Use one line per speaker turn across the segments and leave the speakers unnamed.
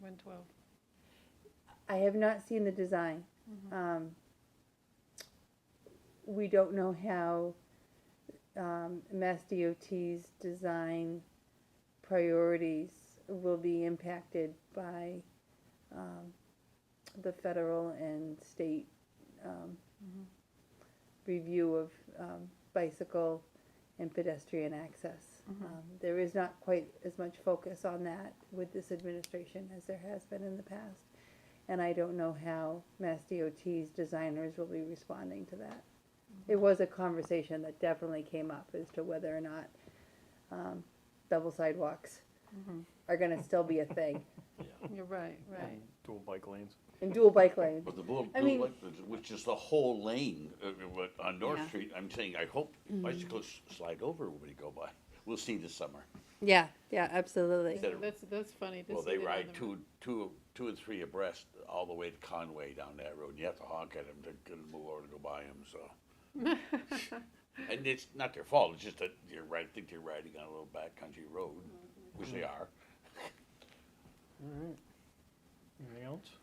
one twelve.
I have not seen the design. Um, we don't know how, um, Mass DOT's design priorities will be impacted by, um, the federal and state, um, review of, um, bicycle and pedestrian access. Um, There is not quite as much focus on that with this administration as there has been in the past. And I don't know how Mass DOT's designers will be responding to that. It was a conversation that definitely came up as to whether or not, um, double sidewalks are gonna still be a thing,
You're right, right.
dual bike lanes.
and dual bike lanes.
But the blue,
I
blue
mean-
light, which is the whole lane, uh, what- on North
Yeah.
Street, I'm saying, I hope bicyclists slide over when we go by. We'll see this summer.
Yeah, yeah, absolutely.
Instead of-
That's, that's funny to
Well,
see
they
that on
ride
the-
two, two, two and three abreast all the way to Conway down that road, and you have to honk at them to get 'em to move over to go by them, so. And it's not their fault, it's just that you're right, think they're riding on a little backcountry road, which they are.
Anything else?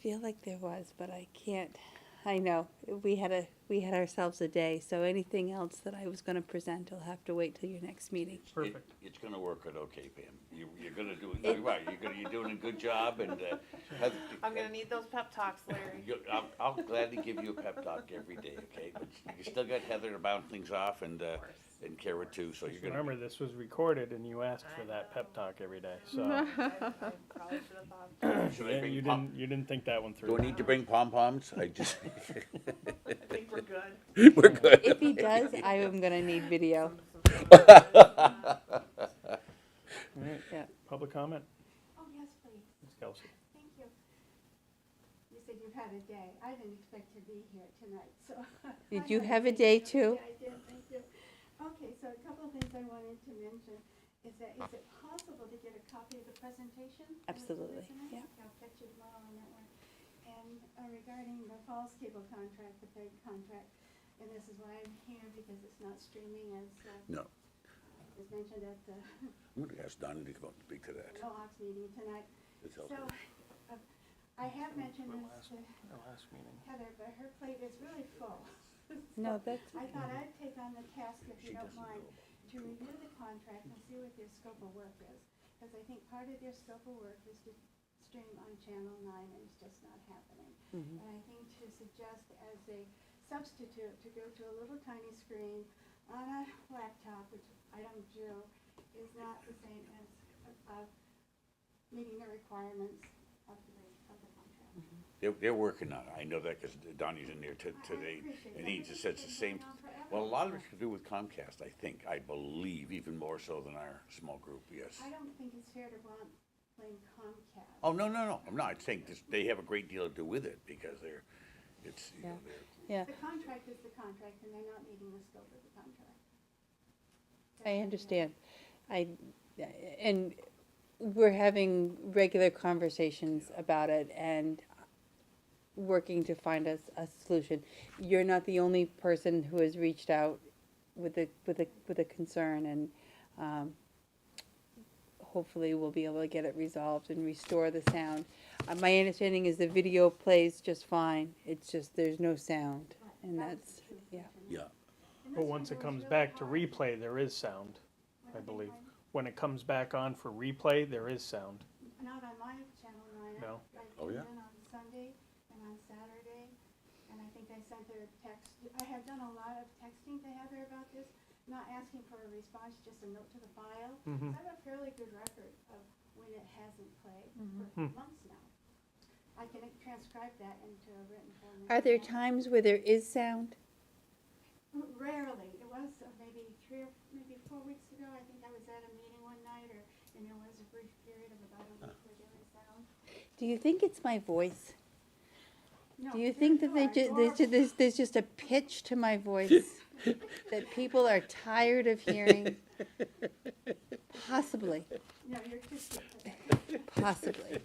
feel like there was, but I can't. I know we had a we had ourselves a day, so anything else that I was going to present, I'll have to wait till your next meeting.
It-
Perfect.
It's gonna work out okay, Pam. You, you're gonna do, you're right, you're gonna, you're doing a good job and, uh. Heather-
I'm gonna need those pep talks, Larry.
You- I'll, I'll gladly give you a pep talk every day, okay? But you still got Heather to bound things off and, uh, and Kara too, so you're
Just
gonna.
remember, this was recorded and you asked for that pep talk every day, so.
I probably should have thought of that.
Should I
Yeah,
bring
You
pom-
didn't, you didn't think that one through.
Do I need to bring pom poms? I just,
I think we're good.
we're good.
If he does, I am going to need video.
All right,
Yeah.
Public comment?
Oh, yes, please,
Ms. Kelsey.
thank you. You said you've had a day, I didn't expect to be here tonight, so.
Did
I
you have
had
a day too?
Yeah, I did, thank you. Okay, so a couple of things I wanted to mention, is that, is it possible to get a copy of the presentation? that was
Absolutely,
tonight?
yeah.
I'll catch you tomorrow on that one. And uh, regarding the Falls Cable contract, the third contract, and this is why I'm here, because it's not streaming as, uh,
No,
as mentioned at the
I'm gonna ask Donna to come up and speak to that.
Mohawks meeting tonight.
It's
So,
helpful.
uh, I have mentioned this to
Our last meeting.
Heather, but her plate is really full.
No, that's
I thought I'd take on the task, if
She
you don't
doesn't
mind, to review the contract and see what their scope of work is. Because I think part of their scope of work is to stream on Channel Nine, and it's just not happening.
Mm-hmm.
And I think to suggest as a substitute to go to a little tiny screen on a laptop, which I don't do, is not the same as, uh, meeting the requirements of the, of the contract.
They're, they're working on it. I know that because Donnie's in there to-
I- I
today,
appreciate
and
that.
he just says the same. Well, a lot of it's to do with Comcast, I think. I believe even more so than our small group, yes.
I don't think it's fair to want, blame Comcast.
Oh, no, no, no, I'm not saying this, they have a great deal to do with it because they're, it's, you know,
Yeah.
they're.
yeah.
The contract is the contract, and they're not meeting the scope of the contract.
I understand. I and we're having regular conversations about it and working to find us a solution. You're not the only person who has reached out with a with a with a concern and um, hopefully we'll be able to get it resolved and restore the sound. Uh, my understanding is the video plays just fine. It's just there's no sound and
That was
that's
the truth.
yeah.
Yeah.
And
But
this
once
one
it
was
comes
really
back to
hard.
replay, there is sound, I believe. When it comes back on for replay, there is sound.
Not on my channel, Nine.
No.
I
Oh,
tuned
yeah.
in on Sunday and on Saturday, and I think I sent her a text. I have done a lot of texting to Heather about this, not asking for a response, just a note to the file.
Mhm.
Mm-hmm.
I have a fairly good record of when it hasn't played
Mm-hmm.
for
Hmm.
months now. I can transcribe that into a written form.
Are there times
times?
where there is sound?
Rarely. It was uh, maybe three or maybe four weeks ago. I think I was at a meeting one night, or and there was a brief period of about a week where there was sound.
Do you think it's my voice?
No,
Do you
there-
think that
no,
they
I-
ju-
or-
there's, ju- there's, there's just a pitch to my voice that people are tired of hearing? Possibly,
No, you're just.
possibly.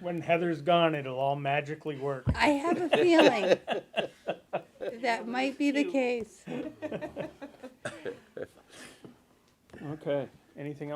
When Heather's gone, it'll all magically work.
I have a feeling that might be the case.
Okay, anything else?